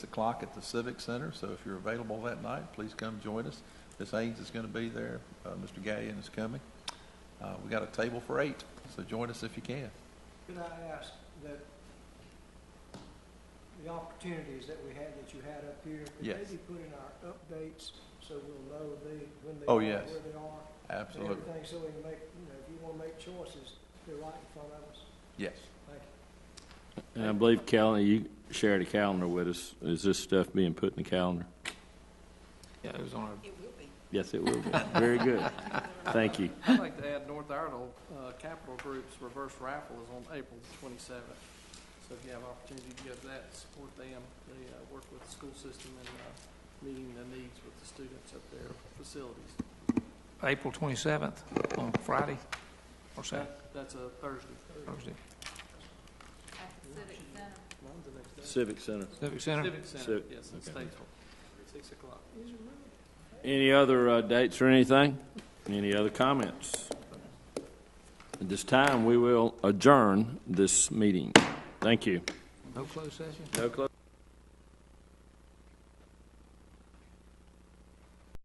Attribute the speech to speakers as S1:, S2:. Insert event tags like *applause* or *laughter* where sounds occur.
S1: o'clock at the Civic Center, so if you're available that night, please come join us. Ms. Haynes is going to be there, uh, Mr. Gallion is coming. Uh, We got a table for eight, so join us if you can.
S2: Could I ask that the opportunities that we had, that you had up here, could
S1: Yes.
S2: maybe put in our updates so we'll know the, when they
S1: Oh,
S2: are, where
S1: yes.
S2: they are? And
S1: Absolutely.
S2: everything, so we can make, you know, if you want to make choices, they're right in front of us.
S1: Yes.
S2: Thank
S3: And I believe Calendar, you shared a calendar with us. Is this stuff being put in the calendar?
S4: Yeah, it was on
S5: It will be.
S3: Yes, it will be. *laughs* Very good. Thank you.
S4: I'd like to add North Iredell uh, Capital Group's reverse raffle is on April the 27th. So if you have opportunity to go to that, support them. They uh, work with the school system and uh, meeting the needs with the students at their facilities.
S6: April 27th, on Friday or Saturday,
S4: That- That's a Thursday.
S6: Thursday.
S5: At the Civic Center.
S4: Mine's the next day.
S3: Civic Center.
S6: Civic Center,
S4: Civic Center,
S3: Civic,
S4: yes, in
S3: okay.
S4: Statesville, 6 o'clock.
S3: Any other uh, dates or anything? Any other comments? At this time, we will adjourn this meeting. Thank you.
S6: no closed session?
S3: No close.